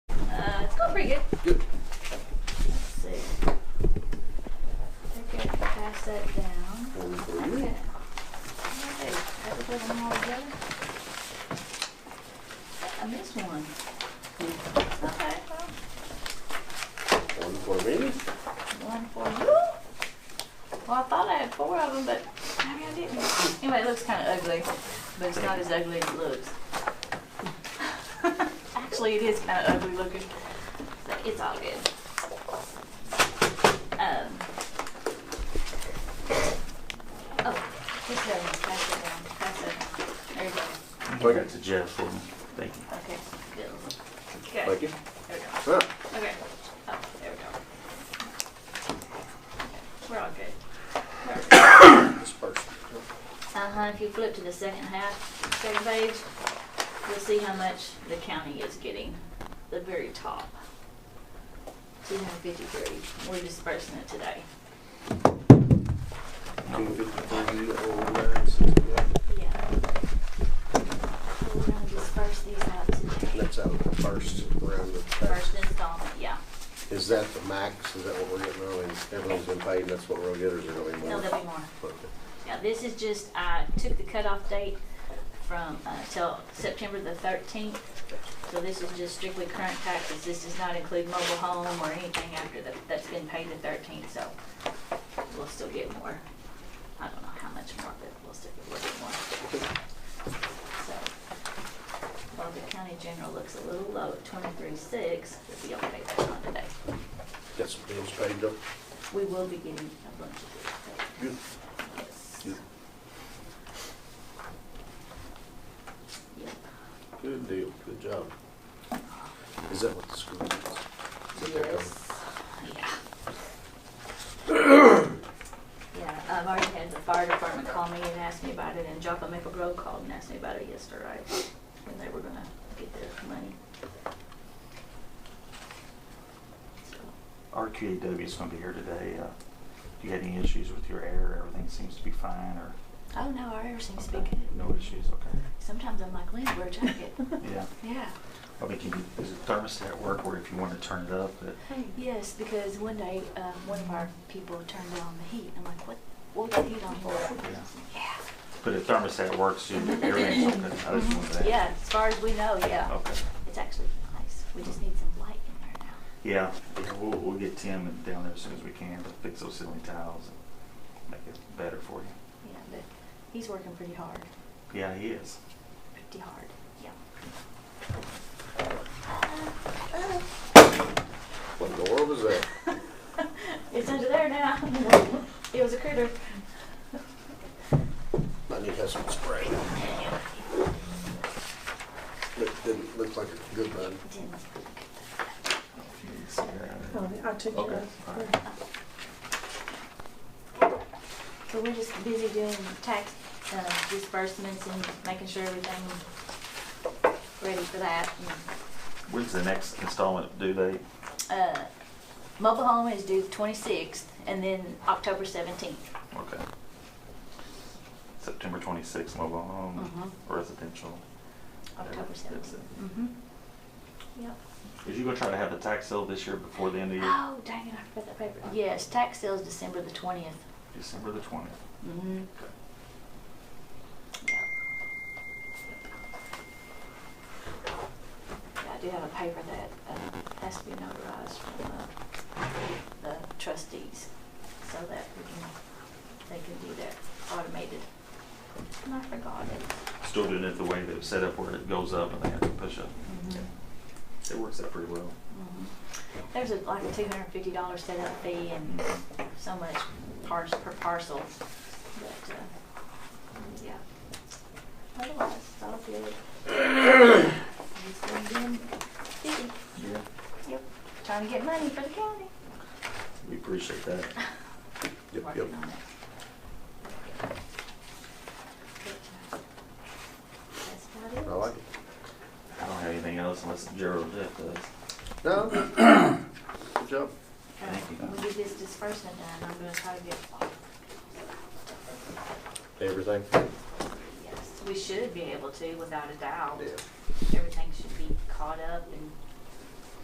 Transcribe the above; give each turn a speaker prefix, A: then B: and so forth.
A: Uh, good?
B: Good.
A: Let's see. I think I can pass that down.
B: One for
A: Yeah.
B: you.
A: Okay, have we put them all together? I missed one. Okay, well,
B: One for me.
A: one for you. Well, I thought I had four of them, but maybe I didn't. Anyway, it looks kind of ugly, but it's not as ugly as it looks. Actually, it is kind of ugly looking, so it's all good. Um. Oh, just go, pass it down, pass it. There you go.
B: Okay.
C: That's a Jeff for me. Thank you.
A: Okay, good. Okay.
B: Thank you.
A: There we go.
B: Ah,
A: Okay. Oh, there we go. Okay, We're all good.
B: this person.
A: Uh-huh, if you flip to the second half, second page, you'll see how much the county is getting, the very top. Two hundred fifty-three, we're dispersing it today.
B: Two fifty-three oh nine sixty-one.
A: Yeah. So We're gonna disperse these out today.
B: That's out of the first round of
A: First
B: taxes.
A: installment, yeah.
B: Is that the max? Is that what we're getting early? Everyone's been paid, that's what we'll get, or is there gonna be more?
A: No, there'll be more.
B: Okay.
A: Now, this is just, I took the cutoff date from, uh, till September the thirteenth. So this is just strictly current taxes. This does not include mobile home or anything after that, that's been paid the thirteenth, so we'll still get more. I don't know how much more, but we'll still get a little bit more. So, while the county general looks a little low at twenty-three six, we don't pay that on today.
B: Got some bills paid though?
A: We will be getting a bunch of this.
B: Good.
A: Yes.
B: Yep.
A: Yep.
B: Good deal, good job. Is that what the school is? Is that their
A: Yes. Yeah. Yeah, I've already had the fire department call me and ask me about it, and Joppa Maple Grove called and asked me about it yesterday, when they were gonna get their money. So,
C: RQAW is gonna be here today. Uh, Do you have any issues with your air? Everything seems to be fine or?
A: Oh, no, our air seems to be
C: Okay,
A: good.
C: No issues, okay.
A: Sometimes I'm like, Lynn, wear a jacket.
C: Yeah.
A: Yeah.
C: I mean, can you, is it thermostat work where if you wanna turn it up, it,
A: Yes, because one day, uh, one of our people turned on the heat. I'm like, what, what was the heat on for? Yeah.
C: but if thermostat works, you- everything's okay. I just
D: Mm-hmm.
C: wanted to ask.
A: Mm-hmm. Yeah, as far as we know, yeah.
C: Okay.
A: It's actually nice. We just need some light in there now.
C: Yeah, yeah, we'll, we'll get Tim and down there as soon as we can to fix those ceiling tiles and make it better for you.
A: Yeah, but he's working pretty hard,
C: Yeah, he is.
A: pretty hard, yeah.
B: What in the world was that?
A: It's under there now. It was a critter.
B: I need to have some spray. Look, didn't, look like a good one.
A: Didn't-
C: He's, uh,
D: Oh, I took
C: Okay,
D: care
C: all
D: of
C: right.
D: it.
A: So we're just busy doing tax uh, disbursements and making sure everything's ready for that. and
C: When's the next installment due date?
A: uh, mobile home is due the twenty-sixth and then October seventeenth.
C: Okay. September twenty-sixth, mobile home,
A: Mhm.
C: residential.
A: October
C: That's it.
A: seventeenth. Mm-hmm. Yep.
C: Is you gonna try to have the tax sale this year before the end of the year?
A: Oh, dang it, I forgot that paper. Yes, tax sale is December the twentieth.
C: December the twentieth.
A: Mm-hmm. Yep. Yeah, I do have a paper that uh, has to be notarized from uh, the trustees so that we can, they can do that automated. And I forgot it.
C: Still doing it the way that it's set up where it goes up and they have to push up.
A: Mhm.
C: It works out pretty well.
A: Mhm. There's a, like a two hundred and fifty dollar setup fee and so much par- per parcel, but, uh, yeah. Otherwise, it's all good. Just been doing busy.
C: Yeah.
A: Yep, trying to get money for the county.
C: We appreciate that.
B: Yep,
A: Working
B: yep.
A: on it. But, uh, That's about it.
B: I like it.
C: I don't have anything else unless Gerald or Jeff does.
B: No, good job.
C: Thank you.
A: When we get this disbursement done, I'm gonna try to get,
B: Everything?
A: yes, we should be able to without a doubt.
B: Yeah.
A: everything should be caught up and